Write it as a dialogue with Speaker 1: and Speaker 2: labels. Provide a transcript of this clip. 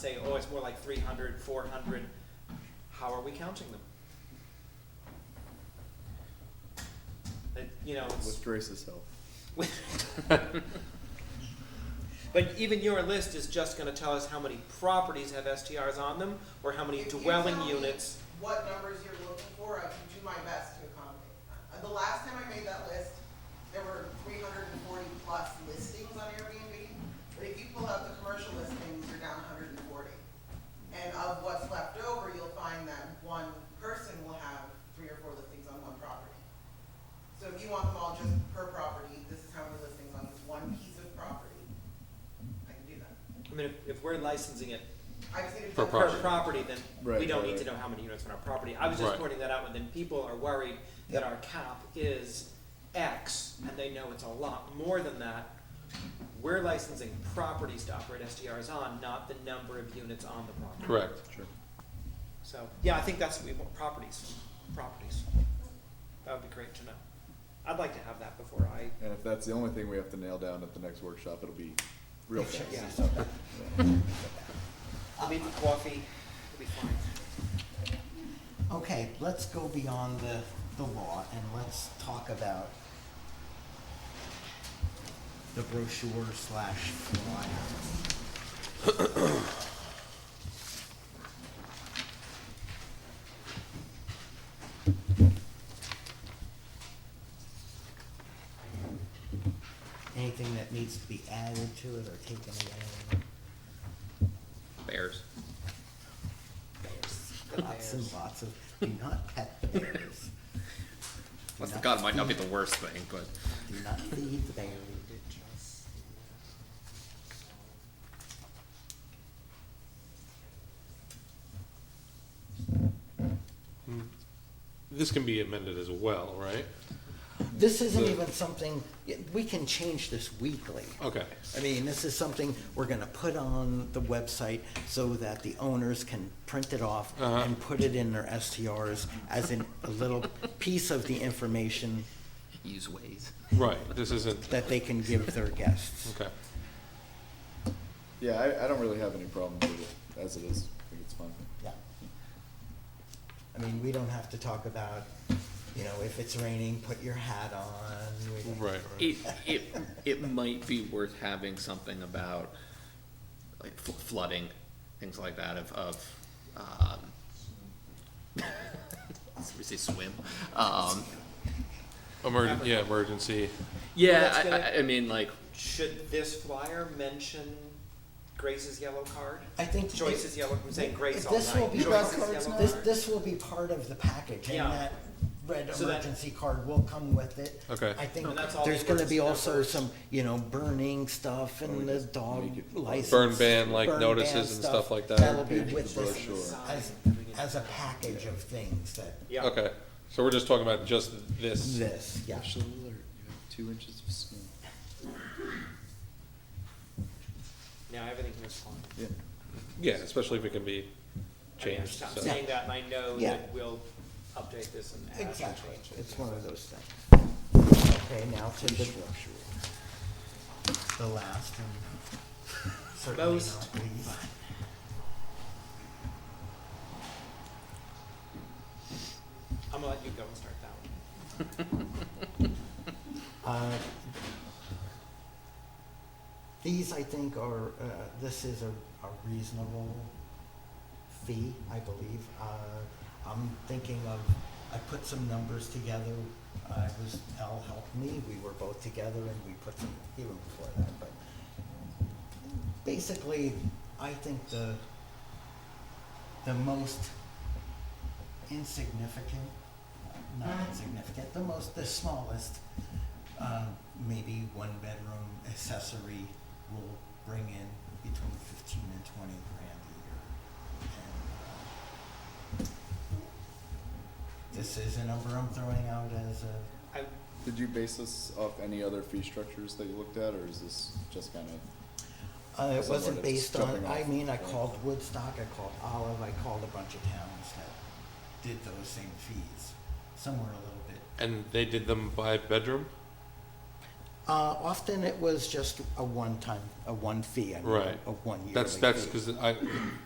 Speaker 1: say, oh, it's more like 300, 400, how are we counting them? It- You know, it's-
Speaker 2: With Grace's help.
Speaker 1: But even your list is just gonna tell us how many properties have STRs on them, or how many
Speaker 3: If you
Speaker 1: dwelling
Speaker 3: tell me
Speaker 1: units.
Speaker 3: What numbers you're looking for, I can do my best to accommodate. Uh, The last time I made that list, there were three hundred and forty plus listings on Airbnb, but if you pull out the commercial listings, you're down hundred and forty. And of what's left over, you'll find that one person will have three or four listings on one property. So if you want them all just per property, this is how many listings on this one piece of property, I can do that.
Speaker 1: I mean, if, if we're licensing it
Speaker 3: I just need to.
Speaker 4: Per
Speaker 1: per
Speaker 4: Property.
Speaker 1: property, then we
Speaker 2: Right,
Speaker 1: don't
Speaker 2: right,
Speaker 1: need to
Speaker 2: right.
Speaker 1: know how many units on our property. I was just
Speaker 4: Right.
Speaker 1: pointing that out, and then people are worried that our cap is X, and they know it's a lot more than that. We're licensing properties to operate STRs on, not the number of units on the property.
Speaker 4: Correct.
Speaker 2: Sure.
Speaker 1: So, yeah, I think that's what we want, properties, properties. That would be great to know. I'd like to have that before I
Speaker 2: And if that's the only thing we have to nail down at the next workshop, it'll be real fast.
Speaker 1: Yeah. We'll meet for coffee, we'll be fine.
Speaker 5: Okay, let's go beyond the, the law and let's talk about the brochure slash flyer. Anything that needs to be added to it or taken away?
Speaker 6: Bears.
Speaker 5: Lots and lots of, do not pet the bears.
Speaker 6: Bless
Speaker 5: Do
Speaker 6: the God, might not be
Speaker 5: feed-
Speaker 6: the worst thing, but
Speaker 5: Do not feed the bears.
Speaker 4: This can be amended as well, right?
Speaker 5: This isn't
Speaker 4: The-
Speaker 5: even something, y- we can change this weekly.
Speaker 4: Okay.
Speaker 5: I mean, this is something we're gonna put on the website so that the owners can print it off
Speaker 4: Uh-huh.
Speaker 5: and put it in their STRs as in a little piece of the information
Speaker 6: use ways.
Speaker 4: Right, this isn't,
Speaker 5: that they can give their guests.
Speaker 4: okay.
Speaker 2: Yeah, I, I don't really have any problems with it as it is. I think it's fine.
Speaker 5: Yeah. I mean, we don't have to talk about, you know, if it's raining, put your hat on. We don't-
Speaker 4: Right, right.
Speaker 6: It it it might be worth having something about like fl- flooding, things like that of of um we say swim. Um
Speaker 4: Emergen, yeah, emergency.
Speaker 6: yeah,
Speaker 1: that's
Speaker 6: I,
Speaker 1: good.
Speaker 6: I, I mean like
Speaker 1: Should this flyer mention Grace's yellow card?
Speaker 5: I think.
Speaker 1: Joyce's yellow, I'm saying Grace all night.
Speaker 5: This will be,
Speaker 1: Joyce's
Speaker 5: this,
Speaker 1: yellow
Speaker 5: this-
Speaker 1: card.
Speaker 5: this will be part of the package
Speaker 1: Yeah.
Speaker 5: and that red
Speaker 1: So that-
Speaker 5: emergency card will come with it.
Speaker 4: Okay.
Speaker 5: I think
Speaker 1: And that's all
Speaker 5: there's
Speaker 1: the
Speaker 5: gonna be
Speaker 1: emergency
Speaker 5: also
Speaker 1: numbers.
Speaker 5: some, you know, burning stuff
Speaker 2: we
Speaker 4: Oh,
Speaker 5: and the
Speaker 2: just
Speaker 5: dog
Speaker 2: make it-
Speaker 5: license.
Speaker 4: Burn ban, like,
Speaker 5: burn
Speaker 4: notices
Speaker 5: ban
Speaker 4: and stuff like that.
Speaker 5: That'll be
Speaker 2: Package
Speaker 5: with
Speaker 2: the
Speaker 5: this
Speaker 2: brochure.
Speaker 5: as, as a package of things that,
Speaker 1: Yeah.
Speaker 4: Okay, so we're just talking about just this.
Speaker 5: this, yeah.
Speaker 2: Special alert, you have two inches of snow.
Speaker 1: Now, everything here's fine.
Speaker 2: Yeah.
Speaker 4: Yeah, especially if it can
Speaker 1: I
Speaker 4: be
Speaker 1: mean, I'm
Speaker 4: changed,
Speaker 1: just-
Speaker 4: so.
Speaker 1: I'm saying that, and I know
Speaker 5: Yeah.
Speaker 1: that we'll update this and add and
Speaker 5: Exactly,
Speaker 1: change
Speaker 5: it's
Speaker 1: it.
Speaker 5: one of those things. Okay, now to the brochure. The last and certainly
Speaker 1: Most.
Speaker 5: not least.
Speaker 1: I'm gonna let you go and start that one.
Speaker 5: Uh, These, I think, are, uh, this is a a reasonable fee, I believe. Uh, I'm thinking of, I put some numbers together. I was, Al helped me, we were both together, and we put some, even before that, but basically, I think the, the most insignificant, not insignificant, the most, the smallest, uh, maybe one bedroom accessory will bring in between fifteen and twenty grand a year. And, uh, This is a number I'm throwing out as a,
Speaker 1: I,
Speaker 2: Did you base this off any other fee structures that you looked at, or is this just kind of?
Speaker 5: uh, it
Speaker 2: Somewhat
Speaker 5: wasn't
Speaker 2: it's
Speaker 5: based on,
Speaker 2: jumping
Speaker 5: I
Speaker 2: off
Speaker 5: mean, I
Speaker 2: point.
Speaker 5: called Woodstock, I called Olive, I called a bunch of towns that did those same fees, somewhere a little bit
Speaker 4: And they did them by bedroom?
Speaker 5: Uh, often it was just a one-time, a one fee, I mean,
Speaker 4: Right.
Speaker 5: a one yearly
Speaker 4: That's, that's,
Speaker 5: fee.
Speaker 4: because I,